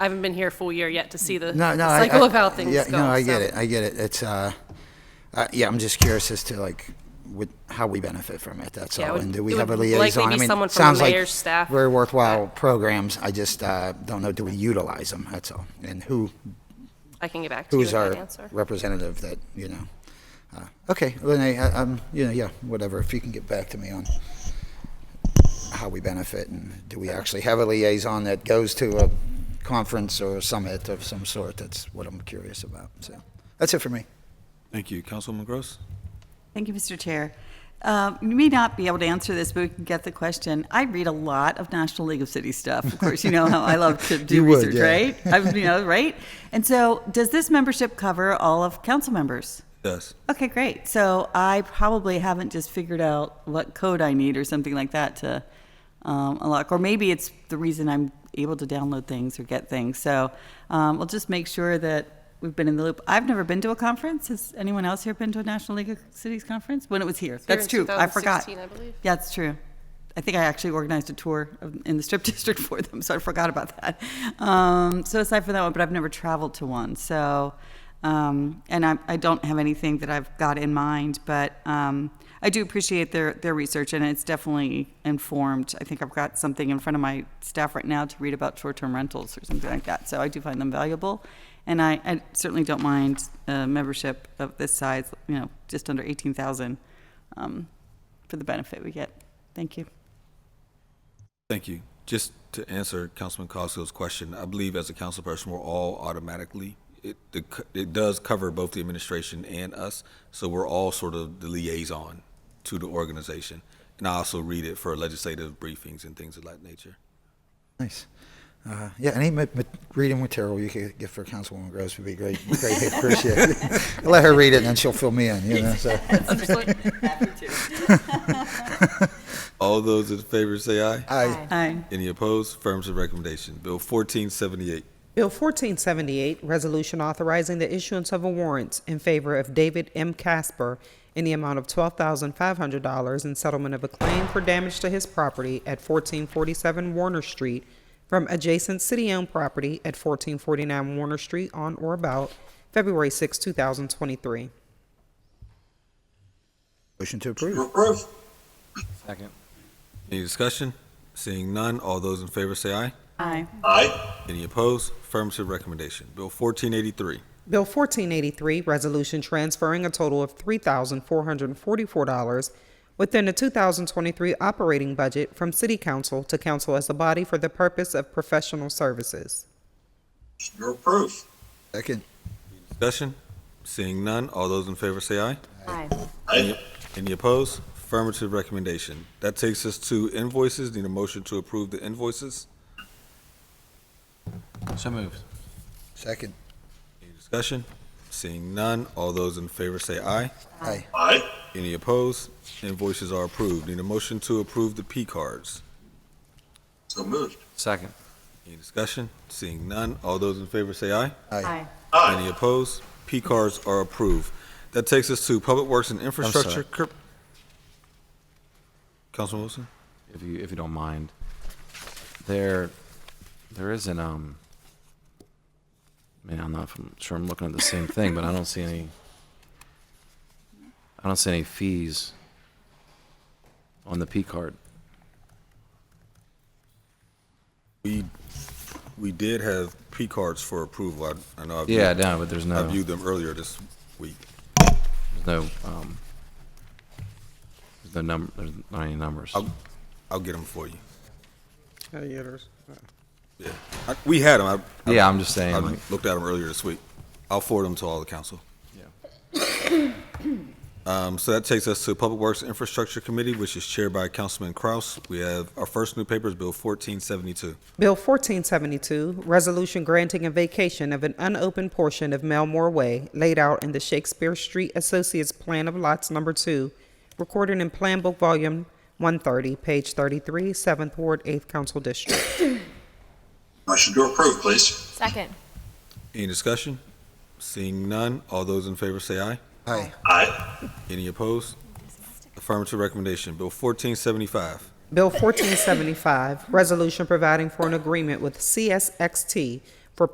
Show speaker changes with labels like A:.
A: I haven't been here a full year yet to see the
B: No, no.
A: the
B: I-
A: cycle
B: I-
A: of how things
B: yeah,
A: go.
B: No, I get
A: so.
B: it. I get it. It's, uh, uh, yeah, I'm just curious as to like, with, how we benefit from it, that's
A: Yeah, it
B: all.
A: would-
B: And do we
A: it
B: have a
A: would likely
B: liaison?
A: be
B: I mean,
A: someone from the
B: sounds like
A: mayor's staff. Uh,
B: Very worthwhile programs. I just, uh, don't know, do we utilize them? That's all. And who,
A: I can get back to you with
B: who's
A: that
B: our
A: answer.
B: representative that, you know? uh, Okay, Lenee, I- um, you know, yeah, whatever. If you can get back to me on how we benefit and do we actually have a liaison that goes to a conference or a summit of some sort? That's what I'm curious about. So that's it for me.
C: Thank you. Councilwoman Gross?
D: Thank you, Mr. Chair. Uh, You may not be able to answer this, but we can get the question. I read a lot of National League of Cities stuff. Of course, you know how I love to do
B: You would,
D: research,
B: yeah.
D: right? I've- You know, right? And so, does this membership cover all of council members?
C: Yes.
D: Okay, great. So I probably haven't just figured out what code I need or something like that to um, unlock, or maybe it's the reason I'm able to download things or get things. So um, we'll just make sure that we've been in the loop. I've never been to a conference. Has anyone else here been to a National League of Cities conference when it was here? That's
A: Here in
D: true. I forgot.
A: 2016, I believe.
D: Yeah, it's true. I think I actually organized a tour of, in the Strip District for them, so I forgot about that. Um, so aside from that one, but I've never traveled to one. So, um, and I, I don't have anything that I've got in mind, but um, I do appreciate their their research, and it's definitely informed. I think I've got something in front of my staff right now to read about short term rentals or something like that. So I do find them valuable, and I, I certainly don't mind uh membership of this size. You know, just under eighteen thousand. Um, for the benefit we get. Thank you.
C: Thank you. Just to answer Councilman Cosgrove's question, I believe as a council person, we're all automatically, it, the co- it does cover both the administration and us, so we're all sort of the liaison to the organization. And I also read it for legislative briefings and things of that nature.
B: Nice. Uh, yeah, any ma- ma- reading material you could get for Councilwoman Groves would be great. Greatly appreciate it. Let her read it and then she'll fill me in, you know, so.
C: All those in favor say aye.
B: I,
D: Aye.
C: Any opposed? Affirmative recommendation. Bill 1478.
E: Bill 1478, resolution authorizing the issuance of a warrant in favor of David M. Casper in the amount of $12,500 in settlement of a claim for damage to his property at 1447 Warner Street from adjacent city-owned property at 1449 Warner Street on or about February 6, 2023.
B: motion to approve.
F: Second.
C: Any discussion? Seeing none, all those in favor say aye.
D: Aye.
C: Any opposed? Affirmative recommendation. Bill 1483.
E: Bill 1483, resolution transferring a total of $3,444 within the 2023 operating budget from City Council to Council as a body for the purpose of professional services.
G: Your proof.
B: Second.
C: Discussion? Seeing none, all those in favor say aye.
H: Aye.
C: Any- Any opposed? Affirmative recommendation. That takes us to invoices. Need a motion to approve the invoices.
F: So moved.
B: Second.
C: Any discussion? Seeing none, all those in favor say aye.
B: Aye.
G: Aye.
C: Any opposed? Invoices are approved. Need a motion to approve the P cards.
G: So moved.
F: Second.
C: Any discussion? Seeing none, all those in favor say aye.
H: Aye.
G: Aye.
C: Any opposed? P cards are approved. That takes us to Public Works and Infrastructure. Cur- Councilman Wilson?
F: If you if you don't mind, there there is an um. Man, I'm not I'm sure I'm looking at the same thing, but I don't see any. I don't see any fees on the P card.
C: We, we did have P cards for approval. I, I know I've.
F: Yeah, no, but there's
C: I
F: no
C: viewed them earlier this week.
F: there's no um. There's no number. There's not any numbers.
C: I'll, I'll get them for you.
E: Oh, yeah, there's-
C: Yeah. I, we had them. I,
F: yeah, I'm just
C: I,
F: saying. like,
C: looked at them earlier this week. I'll forward them to all the council.
F: yeah.
C: Um, so that takes us to Public Works Infrastructure Committee, which is chaired by Councilman Kraus. We have, our first new paper is Bill fourteen seventy-two.
E: Bill 1472, resolution granting a vacation of an unopened portion of Melmore Way laid out in the Shakespeare Street Associates Plan of Lots Number 2, recorded in Plan Book Volume 130, page 33, 7th Ward, 8th Council District.
G: Motion to approve, please.
H: Second.
C: Any discussion? Seeing none, all those in favor say aye.
B: Aye.
G: Aye.
C: Any opposed? Affirmative recommendation. Bill fourteen seventy-five.
E: Bill 1475, Resolution Providing for an Agreement with CSXT